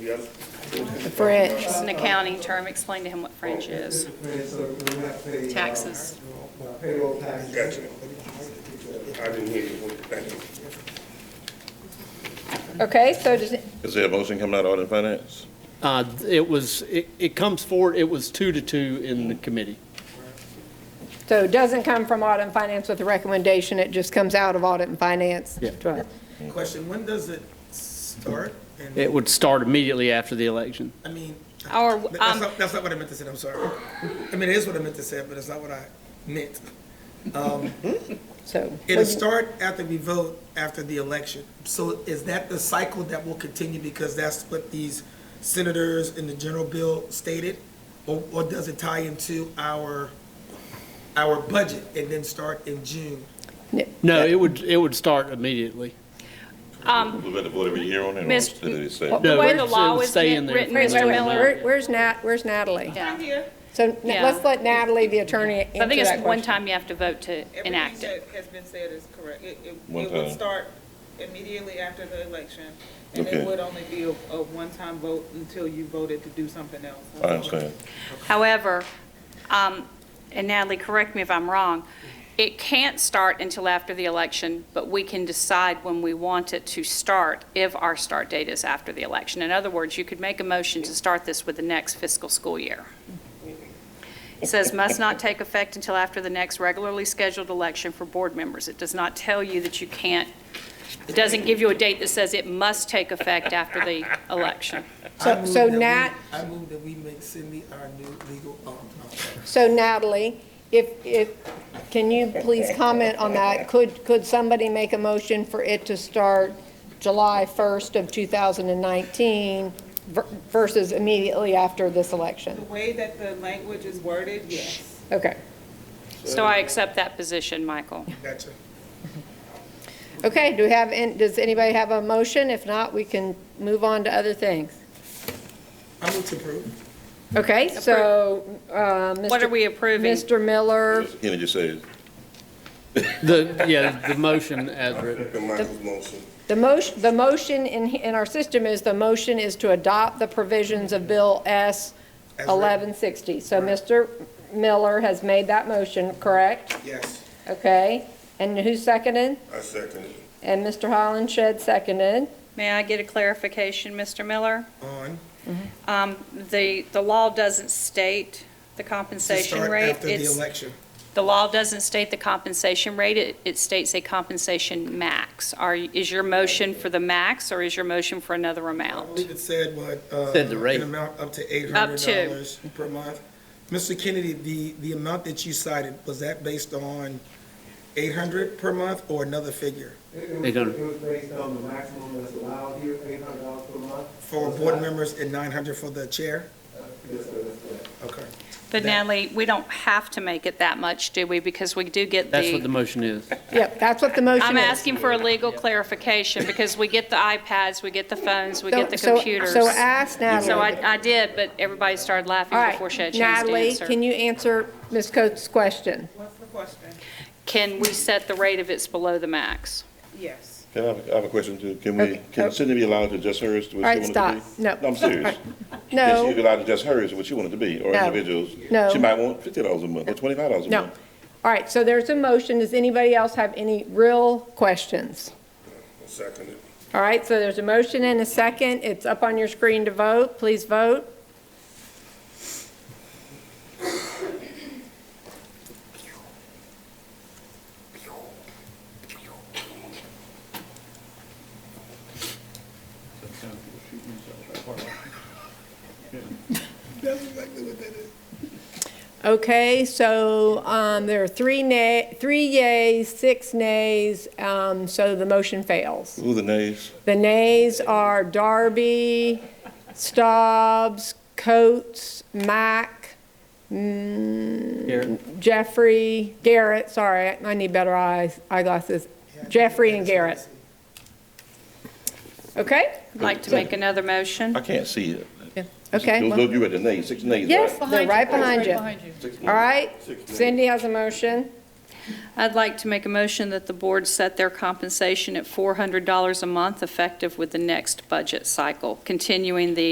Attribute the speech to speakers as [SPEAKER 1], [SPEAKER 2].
[SPEAKER 1] Yep.
[SPEAKER 2] The French.
[SPEAKER 3] It's an accounting term, explain to him what French is. Taxes.
[SPEAKER 4] Payroll taxes.
[SPEAKER 1] Gotcha. I didn't hear you. Thank you.
[SPEAKER 2] Okay, so does, it-
[SPEAKER 5] Is there a motion coming out of audit and finance?
[SPEAKER 6] Uh, It was, it it comes forward, it was two to two in the committee.
[SPEAKER 2] so it doesn't come from audit and finance with a recommendation, it just comes out of audit and finance?
[SPEAKER 6] Yeah.
[SPEAKER 2] Right.
[SPEAKER 4] Question, when does it start? And-
[SPEAKER 6] It would start immediately after the election.
[SPEAKER 4] I mean.
[SPEAKER 3] Or,
[SPEAKER 4] that- that's
[SPEAKER 3] um,
[SPEAKER 4] not- That's not what I meant to say, I'm sorry. I mean, it is what I meant to say, but it's not what I meant.
[SPEAKER 2] So,
[SPEAKER 4] It'll start after we vote, after the election. So is that the cycle that will continue because that's what these senators in the general bill stated? Or, or does it tie into our, our budget and then start in June?
[SPEAKER 6] No, it would, it would start immediately.
[SPEAKER 5] We've got to vote every year on it, or
[SPEAKER 3] Miss-
[SPEAKER 5] did it say?
[SPEAKER 3] the way the
[SPEAKER 6] it's-
[SPEAKER 3] law
[SPEAKER 6] it'll
[SPEAKER 3] is
[SPEAKER 6] stay in there
[SPEAKER 3] written,
[SPEAKER 6] for
[SPEAKER 2] Wait, wait,
[SPEAKER 3] Mr.
[SPEAKER 2] wait.
[SPEAKER 3] Miller.
[SPEAKER 2] Where- where's Nat, where's Natalie?
[SPEAKER 3] Yeah.
[SPEAKER 2] So na-
[SPEAKER 3] Yeah.
[SPEAKER 2] let's let Natalie, the attorney, answer
[SPEAKER 3] I think it's
[SPEAKER 2] that
[SPEAKER 3] one
[SPEAKER 2] question.
[SPEAKER 3] time you have to vote to enact it.
[SPEAKER 7] Everything that has been said is correct. It, it,
[SPEAKER 5] One
[SPEAKER 7] it would
[SPEAKER 5] time.
[SPEAKER 7] start immediately after the election, and
[SPEAKER 5] Okay.
[SPEAKER 7] it would only be a, a one-time vote until you voted to do something else.
[SPEAKER 5] I understand.
[SPEAKER 3] However, um, and Natalie, correct me if I'm wrong, it can't start until after the election, but we can decide when we want it to start if our start date is after the election. In other words, you could make a motion to start this with the next fiscal school year. It says must not take effect until after the next regularly scheduled election for board members. It does not tell you that you can't, it doesn't give you a date that says it must take effect after the election.
[SPEAKER 2] So-
[SPEAKER 4] I move
[SPEAKER 2] so
[SPEAKER 4] that we-
[SPEAKER 2] Nat-
[SPEAKER 4] I move that we make Cindy our new legal, um, um,
[SPEAKER 2] So Natalie, if, if, can you please comment on that? Could, could somebody make a motion for it to start July 1st of 2019 ver- versus immediately after this
[SPEAKER 7] The
[SPEAKER 2] election?
[SPEAKER 7] way that the language is worded, yes.
[SPEAKER 2] Okay,
[SPEAKER 3] So I accept that position, Michael.
[SPEAKER 4] gotcha.
[SPEAKER 2] okay, do we have, an- does anybody have a motion? If not, we can move on to other things.
[SPEAKER 4] I move to approve.
[SPEAKER 2] Okay, so, uh, Mr.
[SPEAKER 3] What are we approving?
[SPEAKER 2] Mr. Miller,
[SPEAKER 5] Kenny just said,
[SPEAKER 6] The, yeah, the motion as written.
[SPEAKER 1] Second Michael's motion.
[SPEAKER 2] the motion, the motion in, in our system is, the motion is to adopt the provisions of Bill S.
[SPEAKER 4] As written.
[SPEAKER 2] 1160. So Mr. Miller has made that motion, correct?
[SPEAKER 4] Yes.
[SPEAKER 2] Okay, and who seconded?
[SPEAKER 1] I second it.
[SPEAKER 2] And Mr. Holland Shed seconded.
[SPEAKER 3] May I get a clarification, Mr. Miller?
[SPEAKER 4] On.
[SPEAKER 3] Um, The, the law doesn't state the
[SPEAKER 4] To
[SPEAKER 3] compensation
[SPEAKER 4] start
[SPEAKER 3] rate.
[SPEAKER 4] after the
[SPEAKER 3] It's-
[SPEAKER 4] election.
[SPEAKER 3] The law doesn't state the compensation rate, it, it states a compensation max. Are, is your motion for the max, or is your motion for another
[SPEAKER 4] I
[SPEAKER 3] amount?
[SPEAKER 4] believe it said what? uh,
[SPEAKER 6] Said the
[SPEAKER 4] An
[SPEAKER 6] rate.
[SPEAKER 4] amount up to eight
[SPEAKER 3] Up
[SPEAKER 4] hundred
[SPEAKER 3] to.
[SPEAKER 4] dollars per month. Mr. Kennedy, the, the amount that you cited, was that based on eight hundred per month or another figure?
[SPEAKER 6] They don't-
[SPEAKER 8] It was based on the maximum that's allowed here, eight hundred dollars per month.
[SPEAKER 4] For board members and nine hundred for the chair?
[SPEAKER 8] Yes, sir, that's correct.
[SPEAKER 4] Okay.
[SPEAKER 3] But Natalie, we don't have to make it that much, do we? Because we do get
[SPEAKER 6] That's what the motion is.
[SPEAKER 2] Yep, that's what the motion is.
[SPEAKER 3] I'm asking for a legal clarification, because we get the iPads, we get the phones, we get the
[SPEAKER 2] So- so-
[SPEAKER 3] computers.
[SPEAKER 2] So ask Natalie.
[SPEAKER 3] So I, I did, but everybody started
[SPEAKER 2] All
[SPEAKER 3] laughing
[SPEAKER 2] right,
[SPEAKER 3] before she had a chance to
[SPEAKER 2] Natalie,
[SPEAKER 3] answer.
[SPEAKER 2] can you answer Ms. Coates' question?
[SPEAKER 7] What's the question?
[SPEAKER 3] Can we set the rate if it's below the max?
[SPEAKER 7] Yes.
[SPEAKER 5] can I have, I have a question too? Can
[SPEAKER 2] Okay.
[SPEAKER 5] we, can Cindy be allowed to adjust hers to what she
[SPEAKER 2] All right,
[SPEAKER 5] wanted to be?
[SPEAKER 2] stop. No.
[SPEAKER 5] I'm serious. Can she be
[SPEAKER 2] No,
[SPEAKER 5] allowed to adjust hers to what she wanted to be, or
[SPEAKER 2] No.
[SPEAKER 5] individuals?
[SPEAKER 2] No.
[SPEAKER 5] She might want fifty dollars a month, or twenty-five dollars a
[SPEAKER 2] no.
[SPEAKER 5] month.
[SPEAKER 2] All right, so there's a motion. Does anybody else have any real questions?
[SPEAKER 1] I second it.
[SPEAKER 2] All right, so there's a motion and a second. It's up on your screen to vote. Please vote. Okay, so um, there are three nay, three yays, six nays, um, so the motion fails.
[SPEAKER 5] Who the nays?
[SPEAKER 2] The nays are Darby, Staubs, Coates, Mack, mm,
[SPEAKER 6] Garrett?
[SPEAKER 2] Jeffrey, Garrett, sorry, I need better eyes, eyeglasses. Jeffrey and Garrett. Okay?
[SPEAKER 3] Like to make another motion?
[SPEAKER 5] I can't see it.
[SPEAKER 2] Okay.
[SPEAKER 5] Those,
[SPEAKER 2] well-
[SPEAKER 5] those you read the nays, six nays, right?
[SPEAKER 2] Yes, they're right behind you.
[SPEAKER 5] Six nays.
[SPEAKER 2] All right,
[SPEAKER 1] Six nays.
[SPEAKER 2] Cindy has a motion.
[SPEAKER 3] I'd like to make a motion that the board set their compensation at $400 a month effective with the next budget cycle, continuing the